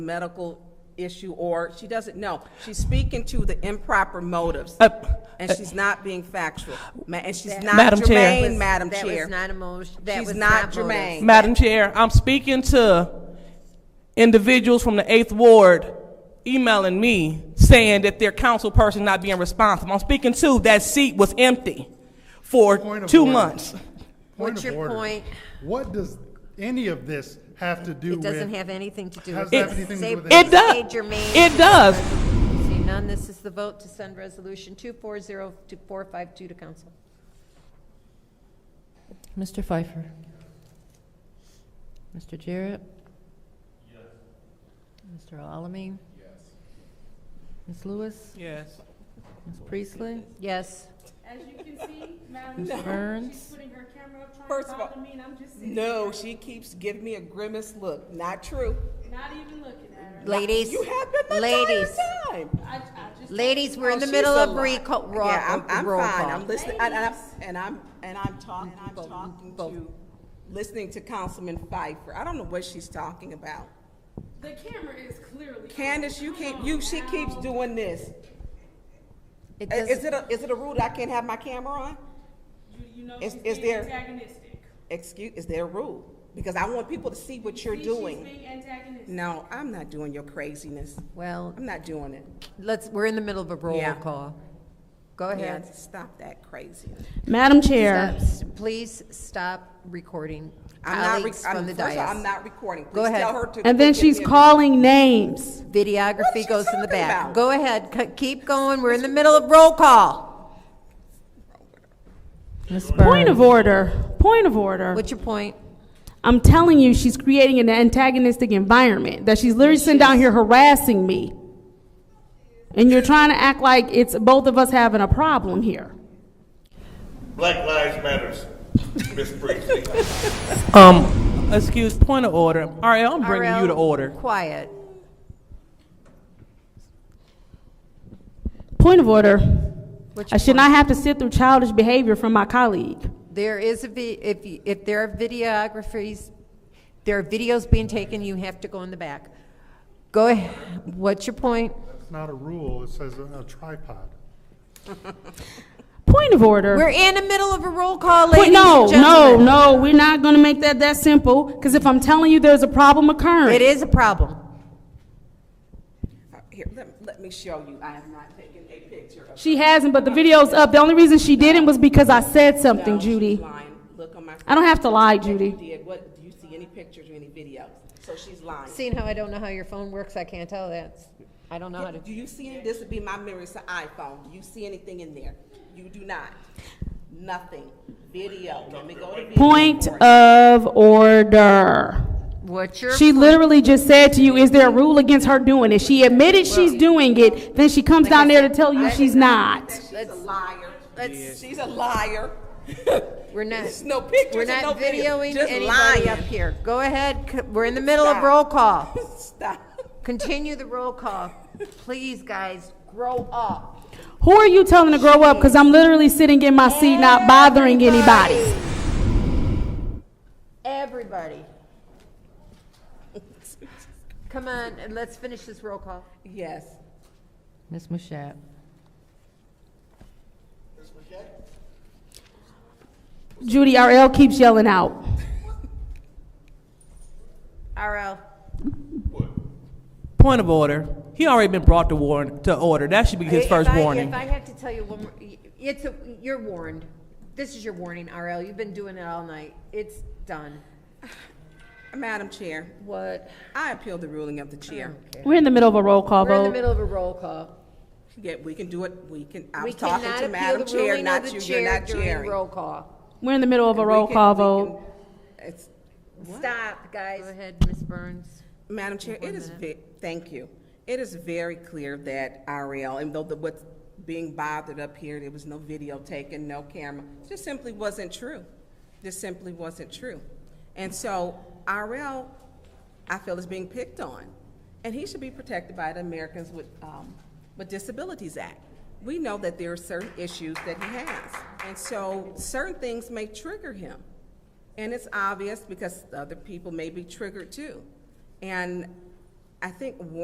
medical issue, or she doesn't know. She's speaking to the improper motives, Uh, and she's not being factual, Ma- and she's not Madam Chair. germane, Madam That was Chair. not a motion, that She's was not not germane. germane. Madam Chair, I'm speaking to individuals from the Eighth Ward emailing me saying that their council person not being responsible. I'm speaking to that seat was empty Point for of two order. months. Point What's of your order. point? What does any of this have to do It with? doesn't have anything to do with. How's that it. have anything to Say- do with It does. say germane. It does. Seeing none, this is the vote to send resolution two four zero to four five two to council. Mr. Pfeiffer? Mr. Jarrett? Yes. Mr. Alamin? Yes. Ms. Lewis? Yes. Ms. Priestley? Yes. As you can see, Madam Ms. Chair, she's Burns? putting her camera up trying First to of bother all- me, and I'm just sitting, No, she keeps giving me a grimace look. Not true. not even looking at her. Ladies, You have been the ladies, entire time. I, I just. ladies, we're Oh, in the she's middle a of lot. recall, roll Yeah, I'm, I'm roll fine. call. I'm listening, and, and I'm, and I'm, and I'm talking, I'm talking to, listening to Councilman Pfeiffer. I don't know what she's talking about. The camera is clearly. Candace, on. you Come can't, on you, she now. keeps doing this. It I- Is it doesn't- a, is it a rule that I can't have my camera on? You, you know Is- she's is being there- antagonistic. Excuse, is there a rule? Because I want people to see what you're See, She's doing. being antagonistic. No, I'm not doing your craziness. Well, I'm not doing it. let's, we're in the middle of a roll Yeah. call. Go Yeah, ahead. stop that crazy. Madam Chair. Stop- Please stop recording I'm not, colleagues rec- I'm- from the first of all, I'm dais. not recording. Go Please ahead. tell her to- And then to give she's me a- calling names. What's she Videography goes in the talking back. about? Go ahead, c- keep going, we're in the middle of roll call. Ms. Burns? Point of order, point of order. What's your point? I'm telling you, she's creating an antagonistic environment, that she's literally sitting down here harassing me. And you're trying to act like it's both of us having a problem here. Black Lives Matters, Miss Priestley. Um, excuse, point of order. RL, I'm bringing you to RL, order. Quiet. Point of order. What's I your should point? not have to sit through childish behavior from my colleague. There is a, vi- if, you- if there are videographies, there are videos being taken, you have to go in the back. Go ahead, what's your point? It's not a rule, it says a a tripod. Point of order. We're in the middle of a roll call, Point- ladies and no, gentlemen. no, no, we're not going to make that that simple, because if I'm telling you there's a problem occurring. It is a problem. Uh, Here, let, let me show you. I have not taken a picture of. She hasn't, but the video's up. The only reason she didn't was because I said something, No, she's Judy. lying. Look on my. I don't have to lie, Judy. You did. What, do you see any pictures or any videos? So she's lying. Seeing how I don't know how your phone works, I can't tell that. I don't know how to. Do you see, any- this would be my mirror, it's an iPhone. Do you see anything in there? You do not. Nothing. Video. Let me go to video. Point for it. of order. What's your? She literally just said to you, is there a rule against her doing it? She admitted she's doing it, then she comes down there to tell you she's not. She's a liar. let's- She's a liar. We're not. There's no pictures We're and not no video. videoing Just anybody lying. up here. Go ahead. c- We're in the middle of Stop. roll call. Stop. Continue the roll call. Please, guys, grow up. Who are you telling to grow up? Because I'm literally sitting in my seat, not bothering anybody. Everybody. Come on, and let's finish this roll call. Yes. Ms. Mashat? Judy RL keeps yelling out. RL. Point of order. He already been brought to warn, to order. That should be his If first I- warning. If I have to tell you one more, it's, a- you're warned. This is your warning, RL. You've been doing it all night. It's done. Madam Chair, What? I appeal the ruling of the chair. Oh. We're in the middle of a roll call We're in the vote. middle of a roll call. Yeah, we can do it. We can, I We was talking cannot to appeal Madam the Chair, ruling of not the you. You're chair not during chairing. Roll call. We're in the middle of a roll call vote. It's, Stop, guys. Go ahead, Ms. Burns. Madam Chair, it is, ve- thank you. It is very clear that RL, and though the, what's being bothered up here, there was no video taken, no camera, just simply wasn't true. This simply wasn't true. And so RL, I feel is being picked on, and he should be protected by the Americans with, um, with Disabilities Act. We know that there are certain issues that he has, and so certain things may trigger him. And it's obvious because other people may be triggered too. And I think